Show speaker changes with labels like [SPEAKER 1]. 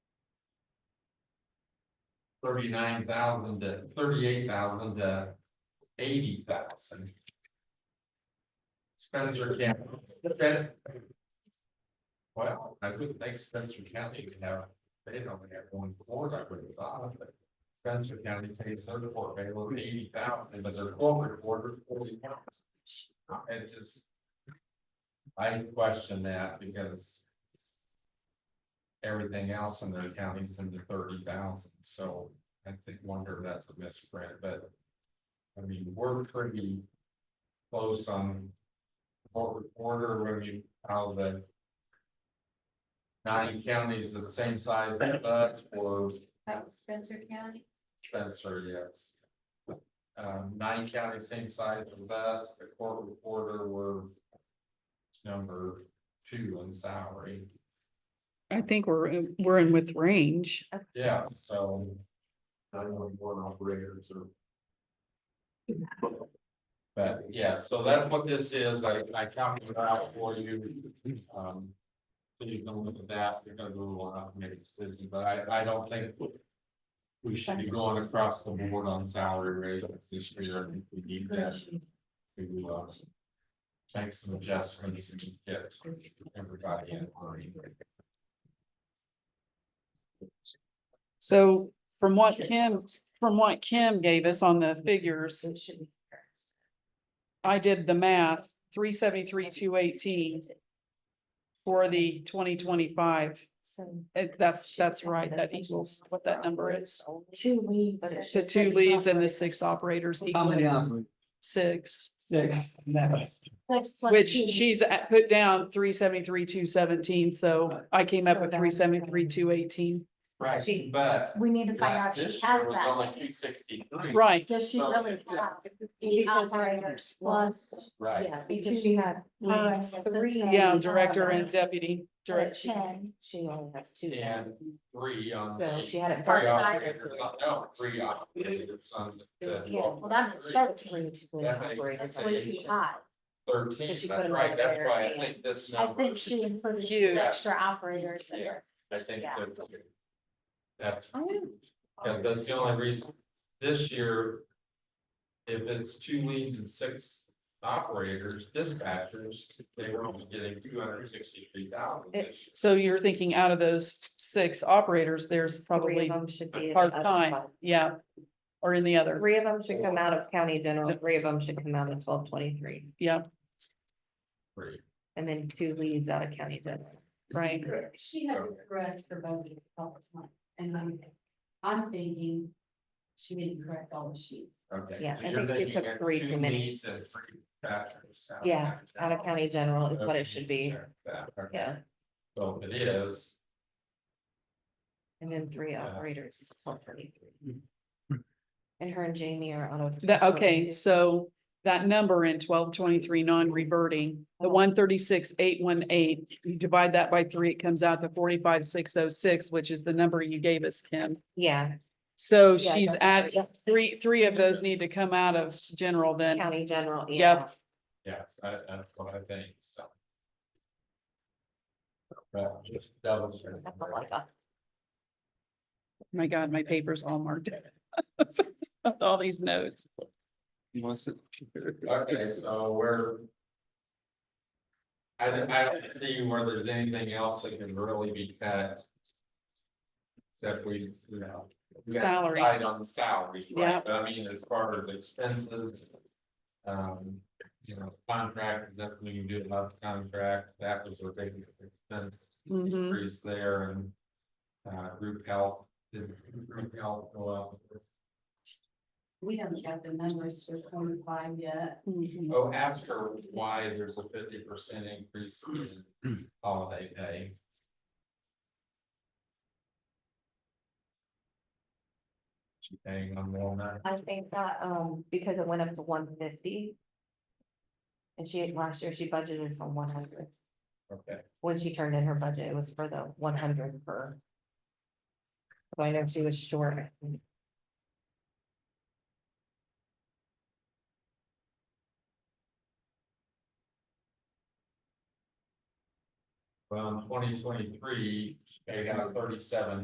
[SPEAKER 1] thirty-nine thousand to thirty-eight thousand to eighty thousand. Spencer County. Spen- Well, I wouldn't think Spencer County would have, they don't have one court, I would have thought, but. Spencer County pays their court bailiff eighty thousand, but their corporate quarter forty thousand. It just. I question that because. Everything else in their counties in the thirty thousand, so I think wonder if that's a misprint, but. I mean, we're pretty close on. Corporate order when you, how the. Nine counties the same size as us or
[SPEAKER 2] That was Spencer County.
[SPEAKER 1] Spencer, yes. Um, nine counties same size as us, the court reporter were. Number two in salary,
[SPEAKER 3] I think we're, we're in with range.
[SPEAKER 1] yeah, so. Nine one one operators or. But yeah, so that's what this is, I I counted it out for you, um. So you can look at that, you're gonna go on up, and make a decision, but I I don't think. We should be going across the board on salary raises this year, I think we need that. to uh Make some adjustments and get everybody in. line.
[SPEAKER 3] So from what Kim, from what Kim gave us on the figures,
[SPEAKER 2] It should be. correct.
[SPEAKER 3] I did the math, three seventy-three, two eighteen for the twenty twenty-five.
[SPEAKER 2] So
[SPEAKER 3] that's, that's right. That equals what that number is.
[SPEAKER 2] two leads.
[SPEAKER 4] But
[SPEAKER 3] The two leads and the six operators
[SPEAKER 4] How many
[SPEAKER 3] equal
[SPEAKER 4] hours?
[SPEAKER 3] six,
[SPEAKER 4] Six. No.
[SPEAKER 3] which she's at- put down three seventy-three, two seventeen. So I came up
[SPEAKER 2] So
[SPEAKER 3] with
[SPEAKER 2] that's-
[SPEAKER 3] three seventy-three, two eighteen.
[SPEAKER 1] Right, but.
[SPEAKER 2] We need to find out if
[SPEAKER 1] This
[SPEAKER 2] she has
[SPEAKER 1] year was
[SPEAKER 2] that.
[SPEAKER 1] Only two sixty-three.
[SPEAKER 3] Right.
[SPEAKER 2] Does she
[SPEAKER 1] So-
[SPEAKER 2] really have? Eight operators plus.
[SPEAKER 1] Right.
[SPEAKER 2] Because she had.
[SPEAKER 3] us Uh, Yeah, director and deputy director.
[SPEAKER 2] Ten.
[SPEAKER 5] She only has two. now.
[SPEAKER 1] And three on.
[SPEAKER 5] So
[SPEAKER 1] the-
[SPEAKER 5] she had it
[SPEAKER 1] Three
[SPEAKER 2] Part-time.
[SPEAKER 1] operators, on- no, three operators on the.
[SPEAKER 5] Yeah,
[SPEAKER 2] Well, that makes thirteen.
[SPEAKER 5] partly to go
[SPEAKER 1] That
[SPEAKER 5] in
[SPEAKER 1] makes
[SPEAKER 5] operating
[SPEAKER 2] That's
[SPEAKER 1] sense.
[SPEAKER 2] way too
[SPEAKER 5] station.
[SPEAKER 2] high.
[SPEAKER 1] Thirteen,
[SPEAKER 5] So she put
[SPEAKER 1] that's
[SPEAKER 5] 'em
[SPEAKER 1] right,
[SPEAKER 5] over
[SPEAKER 1] that's
[SPEAKER 5] there
[SPEAKER 1] why I
[SPEAKER 5] and-
[SPEAKER 1] think this
[SPEAKER 2] I
[SPEAKER 1] number,
[SPEAKER 2] think she included two
[SPEAKER 3] Huge.
[SPEAKER 2] extra operators. in there.
[SPEAKER 1] I think
[SPEAKER 2] yeah.
[SPEAKER 1] that. That, yeah, that's the only reason, this year. If it's two leads and six operators, dispatchers, they were only getting two hundred sixty-three thousand
[SPEAKER 5] It-
[SPEAKER 1] this year.
[SPEAKER 3] So you're thinking out of those six operators, there's
[SPEAKER 5] Three
[SPEAKER 3] probably
[SPEAKER 5] of them should be. in the other
[SPEAKER 3] part-time,
[SPEAKER 5] fund.
[SPEAKER 3] yeah. Or in the other,
[SPEAKER 5] Three of them should come out of county general,
[SPEAKER 3] Ju-
[SPEAKER 5] three of them should come out of twelve twenty-three,
[SPEAKER 3] yeah,
[SPEAKER 1] Three.
[SPEAKER 5] and then two leads out of county general.
[SPEAKER 3] right.
[SPEAKER 6] She had a correct her budget all the time, and I'm, I'm thinking she didn't correct all the sheets.
[SPEAKER 1] Okay.
[SPEAKER 5] Yeah,
[SPEAKER 1] so
[SPEAKER 5] I
[SPEAKER 1] you're
[SPEAKER 5] think it
[SPEAKER 1] thinking
[SPEAKER 5] took
[SPEAKER 1] that
[SPEAKER 5] three
[SPEAKER 1] two
[SPEAKER 5] too many.
[SPEAKER 1] needs and three dispatchers out of county
[SPEAKER 5] Yeah, out of
[SPEAKER 1] general.
[SPEAKER 5] county general is what
[SPEAKER 1] Okay,
[SPEAKER 5] it should be,
[SPEAKER 1] check that, okay.
[SPEAKER 5] yeah,
[SPEAKER 1] So if it is,
[SPEAKER 5] and then three
[SPEAKER 1] Yeah.
[SPEAKER 5] operators, twelve twenty-three. And her and Jamie are out of.
[SPEAKER 3] That, okay, so that number in twelve twenty-three non-reverting, the
[SPEAKER 5] Uh-huh.
[SPEAKER 3] one thirty-six, eight one eight, you divide that by three, it comes out to forty-five, six oh six, which is the number you gave us, Kim.
[SPEAKER 5] Yeah.
[SPEAKER 3] So
[SPEAKER 5] yeah,
[SPEAKER 3] she's at,
[SPEAKER 5] that's right.
[SPEAKER 3] three, three of those need to come out of general then.
[SPEAKER 5] County general, yeah,
[SPEAKER 3] Yep.
[SPEAKER 1] yes, I, that's what I think, so. But just double check.
[SPEAKER 5] that's a lot of-
[SPEAKER 3] My God, my paper's all marked. up. All these notes.
[SPEAKER 1] Okay, so we're. I don't, I don't see where there's anything else that can really be cut. Except we, you know. we gotta
[SPEAKER 3] Salary.
[SPEAKER 1] decide On the salaries, right,
[SPEAKER 3] Yeah.
[SPEAKER 1] but I mean, as far as expenses. Um, you know, contract, definitely you do about the contract, that was a big expense
[SPEAKER 3] Mhm.
[SPEAKER 1] increase there and. Uh, group health, did group health go up?
[SPEAKER 6] We haven't got the numbers for twenty-five yet.
[SPEAKER 3] Mhm.
[SPEAKER 1] Oh, ask her why there's a fifty percent increase in holiday pay. She paying on Walnut,
[SPEAKER 5] I think that, um, because it went up to one fifty. And she, last year she budgeted for one hundred,
[SPEAKER 1] okay,
[SPEAKER 5] when she turned in her budget, it was for the one hundred per. So I know she was short.
[SPEAKER 1] from twenty twenty-three, she paid out thirty-seven